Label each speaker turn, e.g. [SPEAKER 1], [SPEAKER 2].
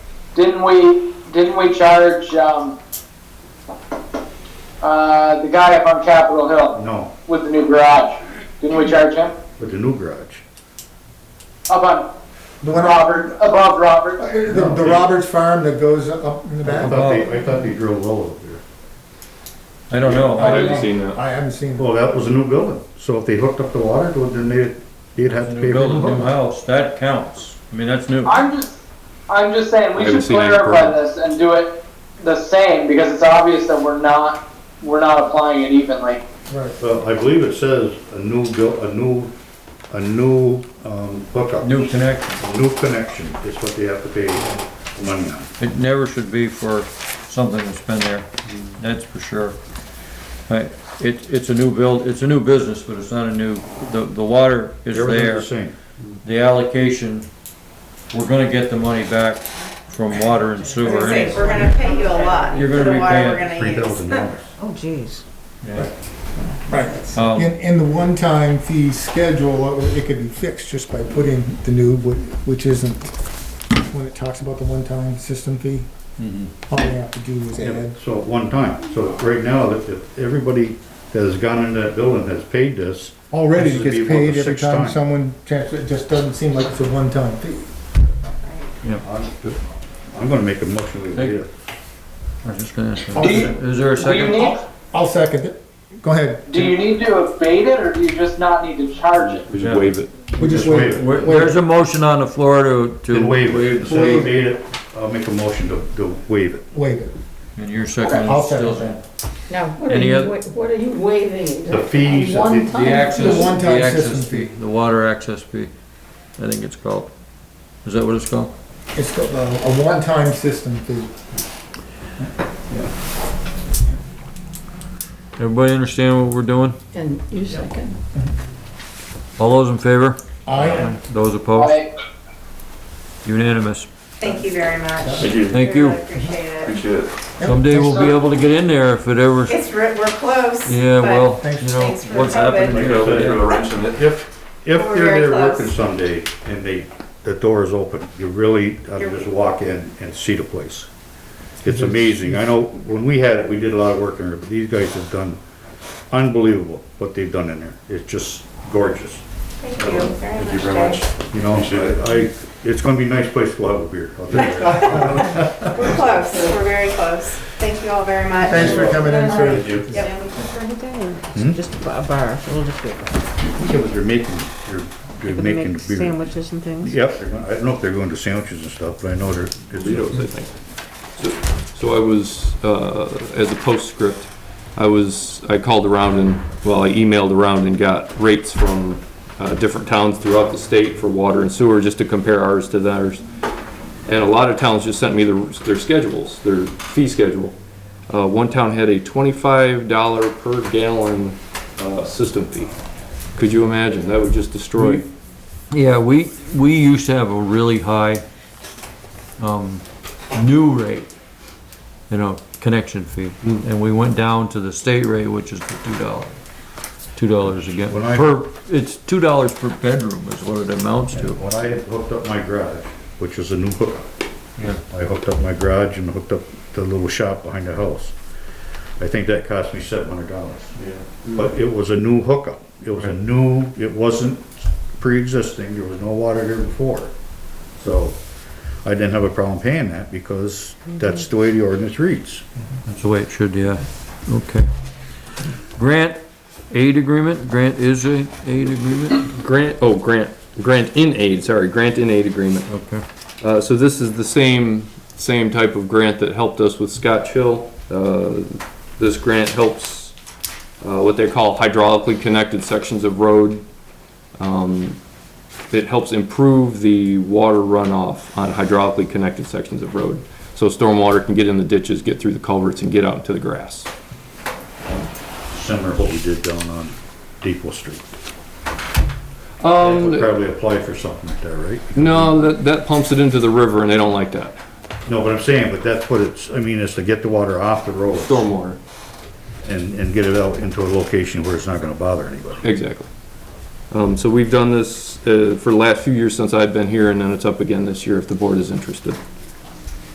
[SPEAKER 1] Didn't we, didn't we charge, um, uh, the guy up on Capitol Hill
[SPEAKER 2] No,
[SPEAKER 1] with the new garage? Didn't we charge him?
[SPEAKER 2] with the new garage.
[SPEAKER 1] Up on
[SPEAKER 3] The one, uh,
[SPEAKER 1] Robert, above Robert?
[SPEAKER 3] the, the Roberts farm that goes up in the
[SPEAKER 2] I
[SPEAKER 3] back.
[SPEAKER 2] thought they, I thought they drilled well up there.
[SPEAKER 4] I don't know.
[SPEAKER 5] I
[SPEAKER 4] I-
[SPEAKER 5] haven't seen that.
[SPEAKER 3] I haven't seen it.
[SPEAKER 2] Well, that was a new building, so if they hooked up the water, well, then they, they'd have to pay for
[SPEAKER 4] New
[SPEAKER 2] the
[SPEAKER 4] building, new
[SPEAKER 2] hook.
[SPEAKER 4] house, that counts. I mean, that's new.
[SPEAKER 1] I'm just, I'm just saying, we
[SPEAKER 5] I haven't
[SPEAKER 1] should
[SPEAKER 5] seen any
[SPEAKER 1] clarify
[SPEAKER 5] purple.
[SPEAKER 1] this and do it the same, because it's obvious that we're not, we're not applying it evenly.
[SPEAKER 3] Right.
[SPEAKER 2] Well, I believe it says a new buil, a new, a new, um, hookup.
[SPEAKER 4] New connection.
[SPEAKER 2] New connection is what they have to pay money on.
[SPEAKER 4] It never should be for something that's been there, that's for sure. Right, it, it's a new build, it's a new business, but it's not a new, the, the water is there.
[SPEAKER 2] Everything's the same.
[SPEAKER 4] The allocation, we're gonna get the money back from water and
[SPEAKER 6] I was
[SPEAKER 4] sewer.
[SPEAKER 6] gonna say,
[SPEAKER 4] anyway.
[SPEAKER 6] we're gonna pay you a lot
[SPEAKER 4] You're
[SPEAKER 6] for
[SPEAKER 4] gonna
[SPEAKER 6] the
[SPEAKER 4] repay
[SPEAKER 6] water
[SPEAKER 4] it
[SPEAKER 6] we're
[SPEAKER 2] Three
[SPEAKER 6] gonna use.
[SPEAKER 2] thousand dollars.
[SPEAKER 7] Oh, geez.
[SPEAKER 3] Right.
[SPEAKER 4] Um,
[SPEAKER 3] In, in the one-time fee schedule, it- it could be fixed just by putting the new, whi- which isn't, when it talks about the one-time system fee, all they have to do is add.
[SPEAKER 2] So at one time, so right now, if, if everybody that has gone into that building has paid this,
[SPEAKER 3] Already
[SPEAKER 2] This
[SPEAKER 3] it
[SPEAKER 2] would
[SPEAKER 3] gets
[SPEAKER 2] be about the
[SPEAKER 3] paid every
[SPEAKER 2] sixth
[SPEAKER 3] time
[SPEAKER 2] time.
[SPEAKER 3] someone, trans- it just doesn't seem like it's a one-time fee.
[SPEAKER 2] I'm, I'm gonna make a motion to
[SPEAKER 4] Thank-
[SPEAKER 2] do it.
[SPEAKER 4] I was just gonna ask
[SPEAKER 3] I'll
[SPEAKER 4] that.
[SPEAKER 1] Do you,
[SPEAKER 3] se-
[SPEAKER 4] Is there a
[SPEAKER 1] do you
[SPEAKER 4] second?
[SPEAKER 1] need,
[SPEAKER 3] I'll second it. Go ahead.
[SPEAKER 1] do you need to abate it, or do you just not need to charge it?
[SPEAKER 5] We just waive it.
[SPEAKER 3] We just
[SPEAKER 2] Just
[SPEAKER 3] wait.
[SPEAKER 2] waive it.
[SPEAKER 4] Where- There's a motion on the floor to, to.
[SPEAKER 2] Then waive it. Say you
[SPEAKER 4] waive.
[SPEAKER 2] made it, I'll make a motion to, to waive it.
[SPEAKER 3] Wait.
[SPEAKER 4] And your second
[SPEAKER 3] I'll
[SPEAKER 4] is
[SPEAKER 3] second
[SPEAKER 4] still.
[SPEAKER 3] that.
[SPEAKER 7] No.
[SPEAKER 4] are Any you oth-
[SPEAKER 7] What are you waiving?
[SPEAKER 2] The fees, the-
[SPEAKER 7] One
[SPEAKER 2] the
[SPEAKER 4] The
[SPEAKER 7] time.
[SPEAKER 4] access,
[SPEAKER 3] one-time
[SPEAKER 4] the access
[SPEAKER 3] system
[SPEAKER 4] fee,
[SPEAKER 3] fee.
[SPEAKER 4] the water access fee, I think it's called. Is that what it's called?
[SPEAKER 3] It's got a a one-time system fee.
[SPEAKER 4] Everybody understand what we're doing?
[SPEAKER 7] And you second.
[SPEAKER 4] All those in favor?
[SPEAKER 3] I,
[SPEAKER 4] Those opposed?
[SPEAKER 1] Like,
[SPEAKER 4] Unanimous.
[SPEAKER 6] Thank you very much.
[SPEAKER 5] Thank you.
[SPEAKER 4] Thank
[SPEAKER 6] We
[SPEAKER 4] you.
[SPEAKER 6] really Appreciate it.
[SPEAKER 5] Appreciate it.
[SPEAKER 4] Someday we'll be able to get in there if it ever,
[SPEAKER 6] It's, re- we're close.
[SPEAKER 4] yeah,
[SPEAKER 6] but
[SPEAKER 4] well,
[SPEAKER 3] Thanks.
[SPEAKER 4] you know,
[SPEAKER 6] Thanks for
[SPEAKER 4] what's
[SPEAKER 6] the COVID.
[SPEAKER 4] happening
[SPEAKER 5] Like
[SPEAKER 4] here
[SPEAKER 5] I
[SPEAKER 4] over
[SPEAKER 5] said, you're
[SPEAKER 4] there.
[SPEAKER 5] the wrench in it.
[SPEAKER 2] If, if
[SPEAKER 6] We're
[SPEAKER 2] they're
[SPEAKER 6] very
[SPEAKER 2] there
[SPEAKER 6] close.
[SPEAKER 2] working someday and they, the door's open, you really, uh, just walk in and see the place. It's amazing. I know, when we had it, we did a lot of work in there, but these guys have done unbelievable what they've done in there. It's just gorgeous,
[SPEAKER 6] Thank you very
[SPEAKER 5] Thank you
[SPEAKER 6] much,
[SPEAKER 5] very much.
[SPEAKER 6] guys.
[SPEAKER 2] you know? I, I- it's gonna be a nice place to have a beer. I'll tell you that.
[SPEAKER 6] We're close, we're very close. Thank you all very much.
[SPEAKER 3] thanks for coming in, sir.
[SPEAKER 5] Thank you.
[SPEAKER 6] Yep.
[SPEAKER 7] Just a bar, bar, a little bit.
[SPEAKER 2] Because They're making, they're, they're making the beer.
[SPEAKER 7] Sandwiches and things.
[SPEAKER 2] Yep, they're gonna- I don't know if they're going to sandwiches and stuff, but I know they're. it's-
[SPEAKER 5] Doritos, I think. So- So I was, uh, as a postscript, I was, I called around and, well, I emailed around and got rates from uh, different towns throughout the state for water and sewer, just to compare ours to theirs. And a lot of towns just sent me their, their schedules, their fee schedule. Uh, One town had a twenty-five dollar per gallon uh, system fee. Could you imagine? That would just destroy.
[SPEAKER 4] Yeah, we, we used to have a really high, um, new rate, you know, connection fee.
[SPEAKER 2] Hmm.
[SPEAKER 4] And we went down to the state rate, which is the two dollar, two dollars again.
[SPEAKER 2] When I-
[SPEAKER 4] Per, it's two dollars per bedroom is what it amounts to.
[SPEAKER 2] When I had hooked up my garage, which is a new hookup.
[SPEAKER 4] Yeah.
[SPEAKER 2] I hooked up my garage and hooked up the little shop behind the house. I think that cost me seven hundred dollars. But it was a new hookup. It was a new, it wasn't pre-existing, there was no water there before. So I didn't have a problem paying that because that's the way the ordinance reads.
[SPEAKER 4] That's the way it should, yeah, okay. Grant aid agreement, grant is a aid agreement,
[SPEAKER 5] Grant, oh, grant, grant in aid, sorry, grant in aid agreement.
[SPEAKER 4] okay.
[SPEAKER 5] Uh, so this is the same, same type of grant that helped us with Scotch Hill. Uh, this grant helps, uh, what they call hydraulically connected sections of road. Um, it helps improve the water runoff on hydraulically connected sections of road. So stormwater can get in the ditches, get through the culverts and get out into the grass.
[SPEAKER 2] Similar to what we did down on Depot Street.
[SPEAKER 5] Um,
[SPEAKER 2] We'll Probably apply for something like that, right?
[SPEAKER 5] no, that, that pumps it into the river and they don't like that.
[SPEAKER 2] No, but I'm saying, but that's what it's, I mean, is to get the water off the road.
[SPEAKER 5] Stormwater,
[SPEAKER 2] and, and get it out into a location where it's not gonna bother anybody.
[SPEAKER 5] exactly. Um, so we've done this, uh, for the last few years since I've been here and then it's up again this year if the board is interested.